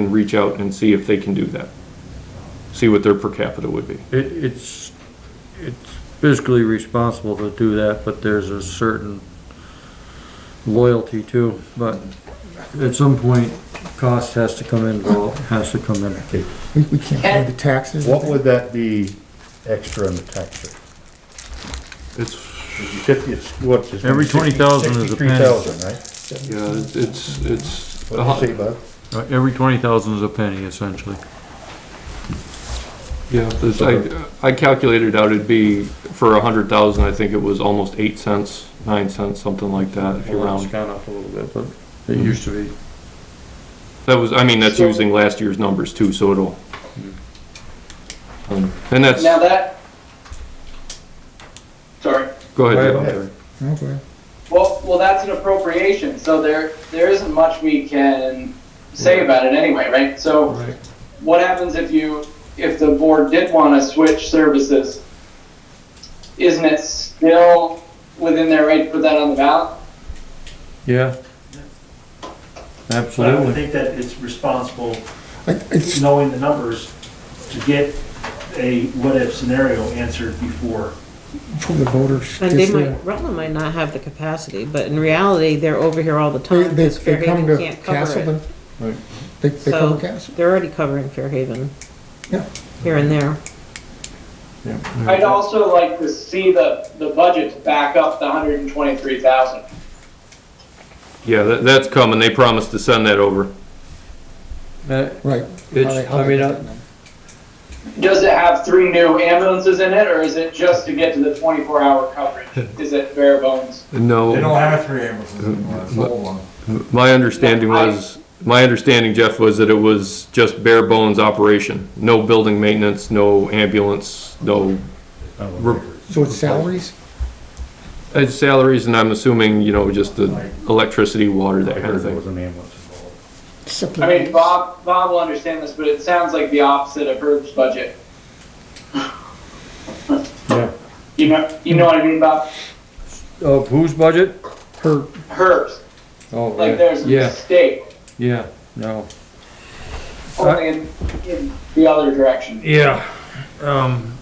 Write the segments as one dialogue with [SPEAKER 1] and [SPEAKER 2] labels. [SPEAKER 1] and reach out and see if they can do that. See what their per capita would be.
[SPEAKER 2] It, it's, it's fiscally responsible to do that, but there's a certain loyalty too, but at some point, cost has to come in, well, has to come in.
[SPEAKER 3] We, we can't pay the taxes.
[SPEAKER 4] What would that be extra in the tax rate?
[SPEAKER 1] It's,
[SPEAKER 4] Fifty, it's what? it's
[SPEAKER 2] Every 20,000 is a
[SPEAKER 4] Sixty-three thousand, right?
[SPEAKER 1] yeah, it's, it's,
[SPEAKER 4] What do you say, Bud?
[SPEAKER 2] Uh, Every twenty thousand is a penny essentially.
[SPEAKER 1] yeah, there's- I, I calculated out it'd be, for a hundred thousand, I think it was almost eight cents, nine cents, something like that, if you round.
[SPEAKER 2] gone up a little bit, but it used to be.
[SPEAKER 1] That was, I mean, that's using last year's numbers too, so it'll. Um, And that's,
[SPEAKER 5] Now that, sorry,
[SPEAKER 1] go
[SPEAKER 2] Right,
[SPEAKER 1] ahead,
[SPEAKER 2] okay.
[SPEAKER 1] Dale.
[SPEAKER 3] Okay.
[SPEAKER 5] well, well, that's an appropriation, so there, there isn't much we can say about it anyway, right? So what happens if you, if the board did want to switch services? Isn't it still within their right to put that on the ballot?
[SPEAKER 2] Yeah.
[SPEAKER 6] But I would
[SPEAKER 2] Absolutely.
[SPEAKER 6] think that it's responsible,
[SPEAKER 3] I- It's,
[SPEAKER 6] knowing the numbers, to get a what-if scenario answered before.
[SPEAKER 3] for the voters.
[SPEAKER 7] And they
[SPEAKER 3] just, uh,
[SPEAKER 7] might, Rutland might not have the capacity, but in reality, they're over here all the
[SPEAKER 3] They,
[SPEAKER 7] time.
[SPEAKER 3] they,
[SPEAKER 7] because
[SPEAKER 3] they come
[SPEAKER 7] Fairhaven
[SPEAKER 3] to
[SPEAKER 7] can't cover it.
[SPEAKER 3] Castleton. They, they
[SPEAKER 7] So
[SPEAKER 3] come to Castleton.
[SPEAKER 7] they're already covering Fairhaven.
[SPEAKER 3] Yeah.
[SPEAKER 7] Here and there.
[SPEAKER 5] I'd also like to see the, the budget to back up the hundred and twenty-three thousand.
[SPEAKER 1] Yeah, that, that's coming. They promised to send that over.
[SPEAKER 2] Uh,
[SPEAKER 3] Right.
[SPEAKER 2] It's- I mean, I-
[SPEAKER 5] Does it have three new ambulances in it, or is it just to get to the twenty-four hour coverage? Is it bare bones?
[SPEAKER 1] No.
[SPEAKER 4] have three ambulances anymore, it's all one.
[SPEAKER 1] My understanding
[SPEAKER 5] No, I-
[SPEAKER 1] was, my understanding, Jeff, was that it was just bare bones operation. No building maintenance, no ambulance, no re-
[SPEAKER 3] So it's salaries?
[SPEAKER 1] uh, salaries, and I'm assuming, you know, just the electricity, water, that kind of
[SPEAKER 4] There
[SPEAKER 1] thing.
[SPEAKER 4] was an ambulance involved.
[SPEAKER 5] I mean, Bob, Bob will understand this, but it sounds like the opposite of Herb's budget.
[SPEAKER 2] Yeah.
[SPEAKER 5] You know, you know what I mean, Bob?
[SPEAKER 2] Of whose budget?
[SPEAKER 3] Her,
[SPEAKER 5] Herb's,
[SPEAKER 2] Oh,
[SPEAKER 5] like there's a
[SPEAKER 2] Yeah,
[SPEAKER 5] mistake,
[SPEAKER 2] yeah, no.
[SPEAKER 5] only in, in the other direction.
[SPEAKER 2] Uh, Yeah, um,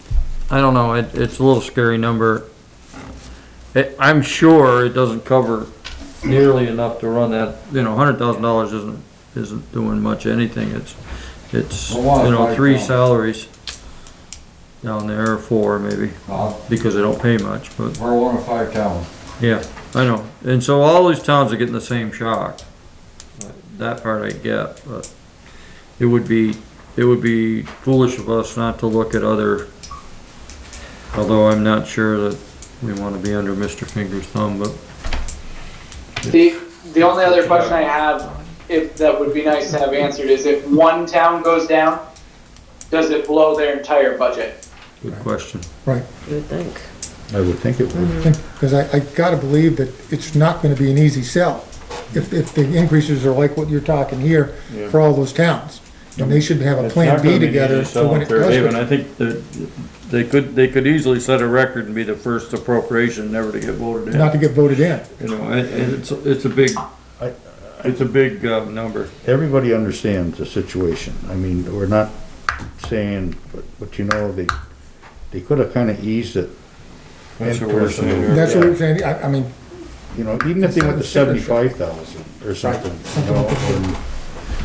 [SPEAKER 2] I don't know, it, it's a little scary number. It, I'm sure it doesn't cover nearly enough to run that, you know, hundred thousand dollars isn't, isn't doing much anything, it's, it's, you know, three salaries down there, or four maybe, because they don't pay much, but. We're one of five towns. Yeah, I know, and so all these towns are getting the same shock. That part I get, but it would be it would be foolish of us not to look at other, although I'm not sure that we want to be under Mr. Finger's thumb, but
[SPEAKER 5] The, the only other question I have, if that would be nice to have answered, is if one town goes down, does it blow their entire budget?
[SPEAKER 2] good question.
[SPEAKER 3] right.
[SPEAKER 7] You would think.
[SPEAKER 4] I would think it
[SPEAKER 3] Mm-hmm.
[SPEAKER 4] would.
[SPEAKER 3] Because I, I gotta believe that it's not gonna be an easy sell if, if the increases are like what you're talking here for all those towns. And they should have a plan B together for when it does.
[SPEAKER 2] Haven,
[SPEAKER 3] go-
[SPEAKER 2] I think that they could, they could easily set a record and be the first appropriation never to get voted
[SPEAKER 3] Not to
[SPEAKER 2] in.
[SPEAKER 3] get voted in.
[SPEAKER 2] You know, it, it's, it's a big,
[SPEAKER 4] I-
[SPEAKER 2] it's a big, uh, number.
[SPEAKER 4] Everybody understands the situation. I mean, we're not saying, but, but you know, they, they could have kind of eased it.
[SPEAKER 2] That's what we're saying here.
[SPEAKER 3] That's what I'm saying. I, I mean,
[SPEAKER 4] You know, even if they went to seventy-five thousand or something, you know, and-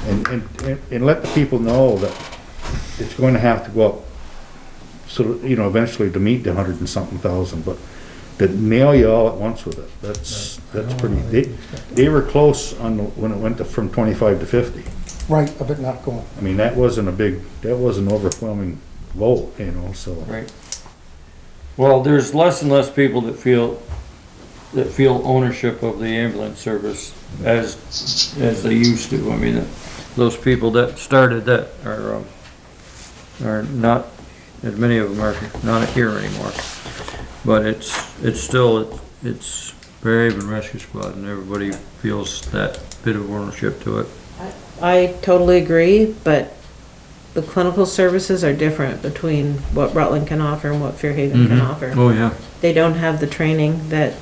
[SPEAKER 4] and, and, and, and let the people know that it's going to have to go up. So, that, you know, eventually to meet the hundred and something thousand, but to nail you all at once with it, that's, that's pretty, they, they were close on, the- when it went to, from twenty-five to fifty.
[SPEAKER 3] right of it not going.
[SPEAKER 4] I mean, that wasn't a big, that wasn't overwhelming vote, you know, so.
[SPEAKER 2] Right. Well, there's less and less people that feel, that feel ownership of the ambulance service as, as they used to. I mean, those people that started that are, um, are not, as many of them are not here anymore. But it's, it's still, it's Fairhaven Rescue Squad and everybody feels that bit of ownership to it.
[SPEAKER 7] I totally agree, but the clinical services are different between what Rutland can offer and what Fairhaven can offer.
[SPEAKER 2] Oh, yeah.
[SPEAKER 7] They don't have the training that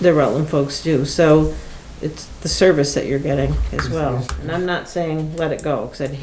[SPEAKER 7] the Rutland folks do, so it's the service that you're getting as
[SPEAKER 3] Is-
[SPEAKER 7] well.
[SPEAKER 3] is-
[SPEAKER 7] And I'm not saying let it go, because I'd